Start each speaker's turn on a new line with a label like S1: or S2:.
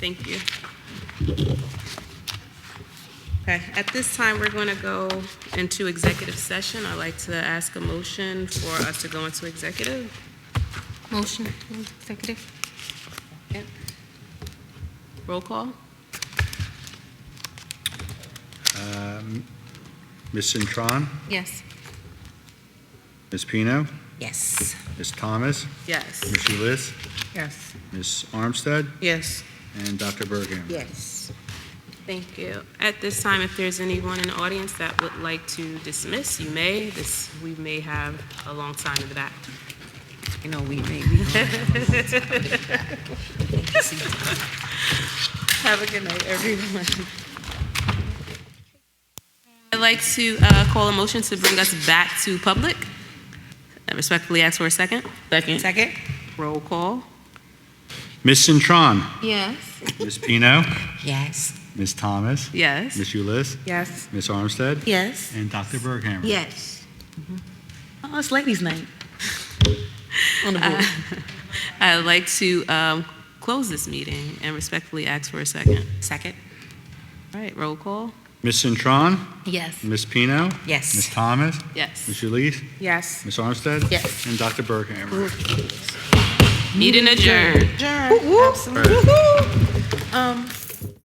S1: Thank you. Okay, at this time, we're going to go into executive session. I'd like to ask a motion for us to go into executive.
S2: Motion, executive.
S1: Roll call?
S3: Ms. Centron,
S2: Yes.
S3: Ms. Pino,
S1: Yes.
S3: Ms. Thomas,
S1: Yes.
S3: Ms. Ulyss,
S4: Yes.
S3: Ms. Armstead,
S4: Yes.
S3: and Dr. Berghammer.
S4: Yes.
S1: Thank you. At this time, if there's anyone in the audience that would like to dismiss, you may. This, we may have a long time in the back.
S4: You know, we may be.
S1: Have a good night, everyone. I'd like to uh, call a motion to bring us back to public. I respectfully ask for a second. Second.
S4: Second?
S1: Roll call.
S3: Ms. Centron,
S2: Yes.
S3: Ms. Pino,
S4: Yes.
S3: Ms. Thomas,
S1: Yes.
S3: Ms. Ulyss,
S4: Yes.
S3: Ms. Armstead,
S4: Yes.
S3: and Dr. Berghammer.
S4: Yes. Oh, it's ladies' night. On the board.
S1: Uh, I'd like to um, close this meeting and respectfully ask for a second.
S4: Second?
S1: All right, roll call.
S3: Ms. Centron,
S2: Yes.
S3: Ms. Pino, Ms.
S4: Yes.
S3: Thomas,
S1: Yes.
S3: Ms. Ulyss,
S4: Yes.
S3: Ms. Armstead,
S4: Yes.
S3: and Dr. Berghammer.
S1: Meeting adjourned.
S4: Adjourned. Absolutely. Um,